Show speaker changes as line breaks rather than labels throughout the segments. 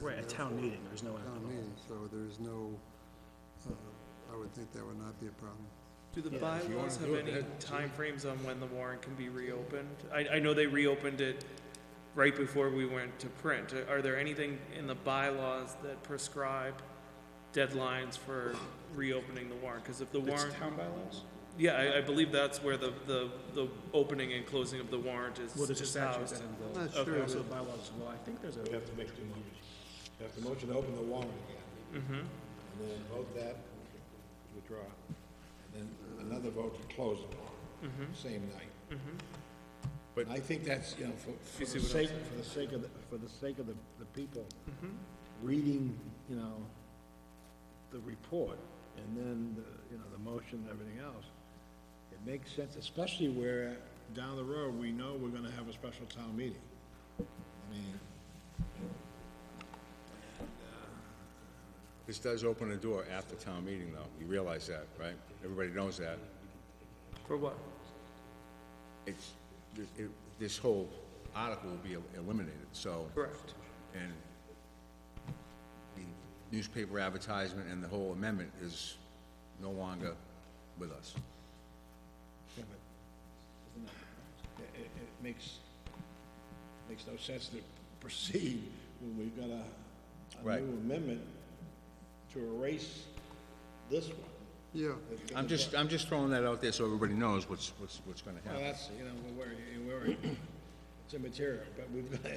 Right, a town meeting, there's no
town
alcohol.
meeting, so there's no, uh, I would think that would not be a problem.
Do the
Yeah,
you wanna
bylaws have
do it,
any
Ed.
timeframes on when the warrant can be reopened? I, I know they reopened it right before we went to print. Uh, Are- Are there anything in the bylaws that prescribe deadlines for reopening the warrant? Because if the
It's
warrant,
town bylaws?
yeah, I, I believe that's where the, the, the opening and closing of the warrant is,
Well, there's a
is
statute
housed.
that
I'm
involves,
not
Okay,
sure,
also
that-
bylaws as well, I think there's a,
You have to make two motions. You have to motion to open the warrant again. Mm-hmm. And then vote that, withdraw. And then another vote to close the warrant, same night. Mm-hmm. But I think that's, you know, for,
Mm-hmm. You see
for the
what I'm Mm-hmm.
sake, for the sake of, the for the sake of the, the people reading, you know, the report, and then, the you know, the motion and everything else, it makes sense, especially where down the road, we know we're gonna have a special town meeting. I mean,
This does open a door after town meeting, though. You realize that, right? Everybody knows that.
For what?
It's, it, this whole article will be eliminated, so.
Correct.
And the newspaper advertisement and the whole amendment is no longer with us.
Yeah, but isn't that- It, it, it makes, makes no sense to proceed when we've got a, a
Right.
new amendment to erase this one.
yeah,
I'm just, I'm just throwing that out there so everybody knows what's, what's, what's gonna
Well,
happen.
that's, you know, we're, we're, it's immaterial, but we've got,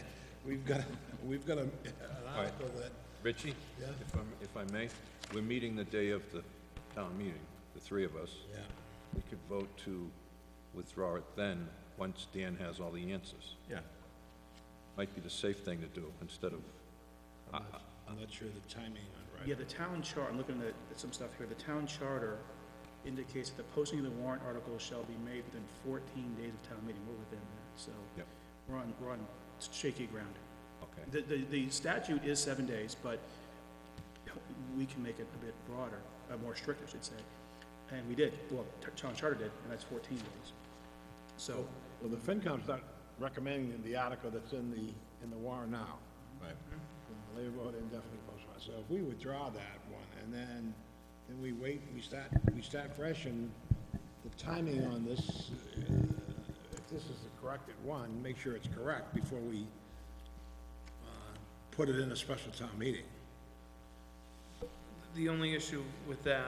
we've got, we've got a, an article that,
Richie? If I'm, if I may, we're meeting the day of the town meeting, the three of us.
yeah,
We could vote to withdraw it then, once Dan has all the answers.
Yeah.
Might be the safe thing to do, instead of,
I'm not sure the timing on right.
yeah, the town chart, I'm looking at at some stuff here, the town charter indicates that the posting of the warrant article shall be made within fourteen days of town meeting, we're within that, so.
Yep.
We're on, we're on shaky ground.
okay,
The, the, the statute is seven days, but we can make it a bit broader, uh, more strict, I should say. And we did, well, t- town charter did, and that's fourteen days. So,
Well, the FinCom's not recommending the article that's in the, in the warrant now.
Right.
They vote indefinitely postponed, so if we withdraw that one, and then, then we wait, we start, we start fresh, and the timing on this, uh, if this is the corrected one, make sure it's correct before we, uh, put it in a special town meeting.
The only issue with that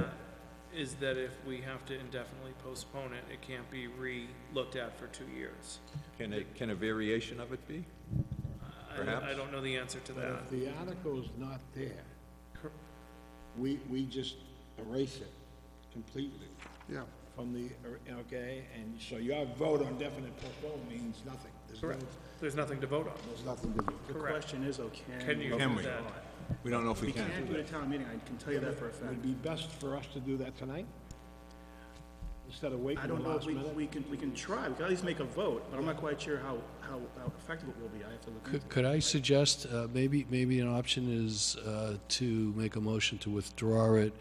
is that if we have to indefinitely postpone it, it can't be re-looked at for two years.
can a, can a variation of it be?
I- I
Perhaps.
don't know the answer to
But
that.
if the article's not there,
Cor-
we, we just erase it completely
yeah.
from the, or- okay, and so your vote on definite postpone means nothing. There's no-
Correct. There's nothing to vote on.
There's nothing to do.
the
Correct.
question is, though, can.
Can you
we
do
we?
that?
We don't know if
We
we
can't
can.
do it at town meeting, I can tell you that for a
It
fact.
would be best for us to do that tonight? Instead of waiting
I
the
don't know, if
last
we,
minute?
we can, we can try, we can at least make a vote, but I'm not quite sure how, how how effective it will be, I have to look into it.
Could, could I suggest, uh, maybe, maybe an option is, uh, to make a motion to withdraw it,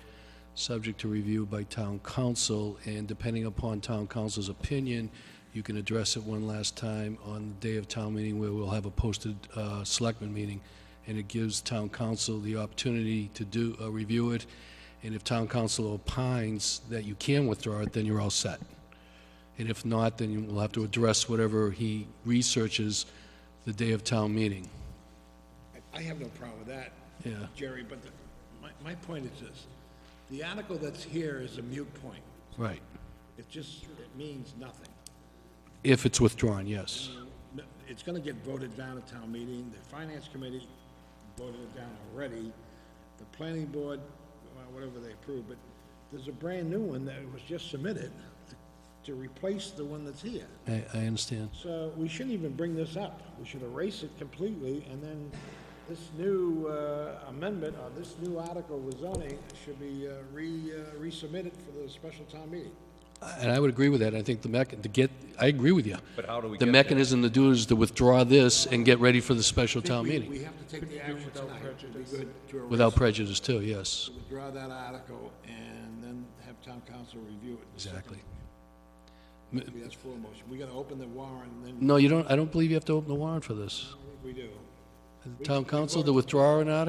subject to review by town council, and depending upon town council's opinion, you can address it one last time on the day of town meeting where we'll have a posted, uh, selectmen meeting, and it gives town council the opportunity to do, uh, review it, and if town council opines that you can withdraw it, then you're all set. And if not, then you will have to address whatever he researches the day of town meeting.
I- I have no problem with that.
Yeah.
Jerry, but the- my, my point is this. The article that's here is a mute point.
Right.
It just, it means nothing.
If it's withdrawn, yes.
No, It's gonna get voted down at town meeting. The finance committee voted it down already. The planning board, well, whatever they approved, but there's a brand-new one that was just submitted to- to replace the one that's here.
I, I understand.
So we shouldn't even bring this up. We should erase it completely, and then this new uh, amendment, or this new article with zoning should be uh, re, uh, resubmitted for the special town meeting.
And I would agree with that. I think the mech, to get, I agree with you.
But how do we
The
get there?
mechanism to do is to withdraw this and get ready for the special town
We-
meeting.
We have to take the action tonight. It'd be good to erase-
Without prejudice too, yes.
Withdraw that article and then have town council review it. the second-
Exactly.
Maybe that's full motion. We gotta open the warrant and then
No, you don't, I don't believe you have to open the warrant for this.
we do.
The Town council to withdraw an article